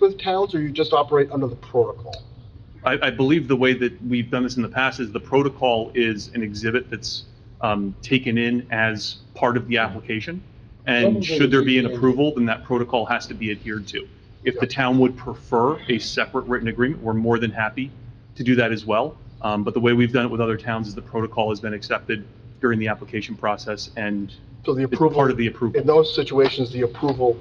with towns, or you just operate under the protocol? I, I believe the way that we've done this in the past is the protocol is an exhibit that's um, taken in as part of the application. And should there be an approval, then that protocol has to be adhered to. If the town would prefer a separate written agreement, we're more than happy to do that as well. Um, But the way we've done it with other towns is the protocol has been accepted during the application process and So the it's approval. part of the approval. In those situations, the approval,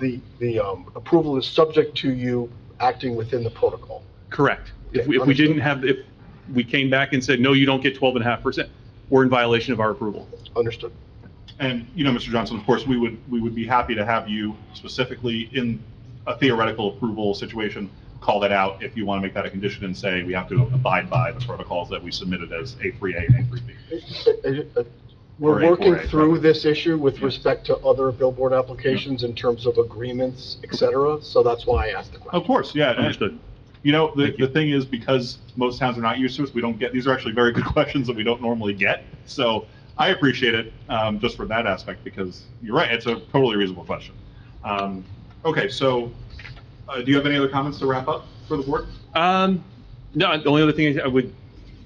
the, the um, approval is subject to you acting within the protocol. Correct. If Okay, we, if we understood. didn't have, if we came back and said, no, you don't get 12 and a half percent, we're in violation of our approval. Understood? And, you know, Mr. Johnson, of course, we would, we would be happy to have you specifically in a theoretical approval situation, call that out if you want to make that a condition and say we have to abide by the protocols that we submitted as A3A and A3B. Or We're A4A, working through probably. this issue with Yeah. respect to other billboard applications in terms of agreements, et cetera, so that's why I asked the question. Of course, yeah. and- Understood. You know, the, Thank you. the thing is, because most towns are not used to us, we don't get, these are actually very good questions that we don't normally get. So I appreciate it, um, just for that aspect, because you're right, it's a totally reasonable question. Um, okay, so, uh, do you have any other comments to wrap up for the board? Um, no, the only other thing I would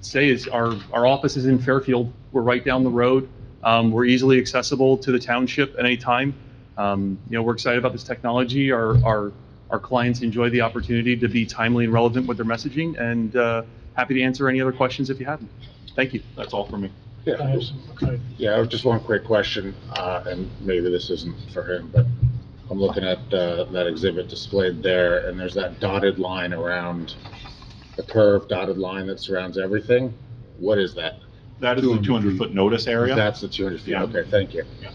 say is our, our office is in Fairfield. We're right down the road. Um, we're easily accessible to the township at any time. Um, you know, we're excited about this technology. Our, our, our clients enjoy the opportunity to be timely and relevant with their messaging and, uh, happy to answer any other questions if you have them. Thank you. That's all for me. Yeah, yeah, I have just one quick question, uh, and maybe this isn't for him, but I'm looking at, uh, that exhibit displayed there, and there's that dotted line around, the curved dotted line that surrounds everything. What is that? That is the 200 feet. 200-foot notice area. That's the 200 feet. Yeah. Okay, thank you. Yeah.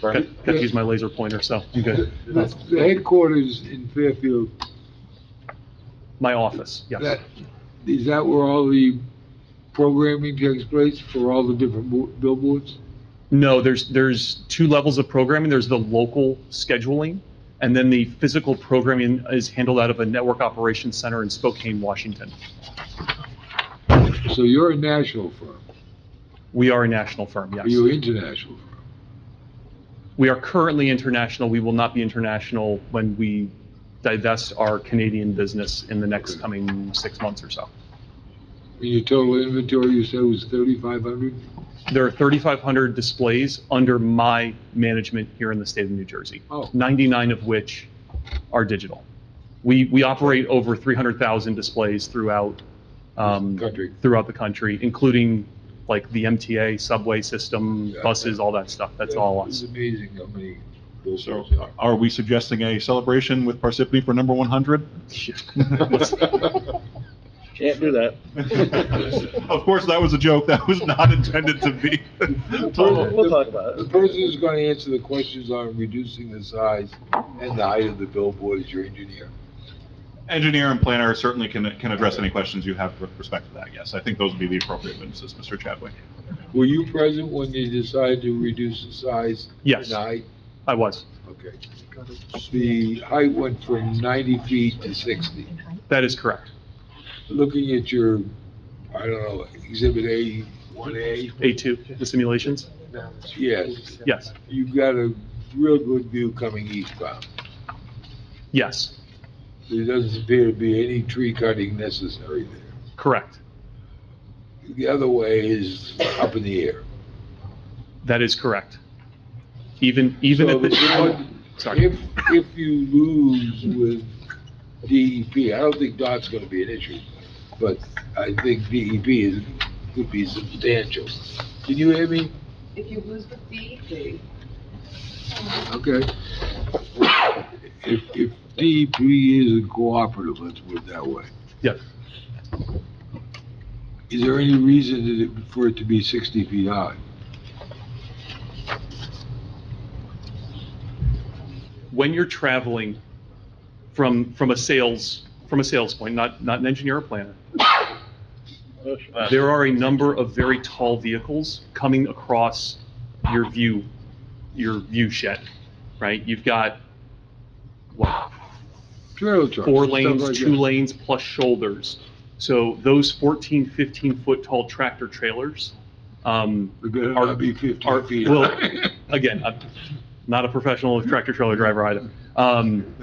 Bernie? Got got to use my laser pointer, so I'm good. The the headquarters in Fairfield, My office, yes. that, is that where all the programming takes place for all the different bo- billboards? No, there's, there's two levels of programming. There's the local scheduling, and then the physical programming is handled out of a network operations center in Spokane, Washington. So you're a national firm, We are a national firm, or you're yes. international firm? We are currently international. We will not be international when we divest our Canadian business in the next coming six months or so. And your total inventory, you said was thirty-five hundred? There are 3,500 displays under my management here in the state of New Jersey. Oh. 99 of which are digital. We, we operate over 300,000 displays throughout, um, Country. throughout the country, including like the MTA subway system, Yeah. buses, all that stuff. That's all It's us. amazing how many So billboards. are we suggesting a celebration with Parsippany for number 100? Can't do that. Of course, that was a joke. That was not intended to be. We'll, we'll talk about The it. person who's gonna answer the questions on reducing the size and the height of the billboard is your engineer. Engineer and planner certainly can, can address any questions you have with respect to that, yes. I think those would be the appropriate witnesses, Mr. Chadwick. Were you present when they decided to reduce the size? Yes. And height? I was. Okay. The height went from 90 feet to 60. That is correct. Looking at your, I don't know, Exhibit A, 1A, A2, the simulations? yes, Yes, you've got a real good view coming eastbound. yes, There doesn't appear to be any tree cutting necessary there. correct. The other way is up in the air. That is correct. Even, even So at the, what- sorry. If, if you lose with DEP, I don't think DOT's gonna be an issue, but I think DEP is, could be substantial. Can you hear me? If you lose the fee, Okay. If, if DEP is a cooperative, let's put it that way, Yes. is there any reason that it- for it to be sixty feet high? when you're traveling from, from a sales, from a sales point, not, not an engineer or planner, there are a number of very tall vehicles coming across your view, your view shed, right? You've got, what, Trailer trucks. four stuff like lanes, two that. lanes plus shoulders. So those 14, 15-foot tall tractor trailers um, It better are- not be are, fifteen feet. well, high. again, I'm not a professional tractor trailer driver either. Um,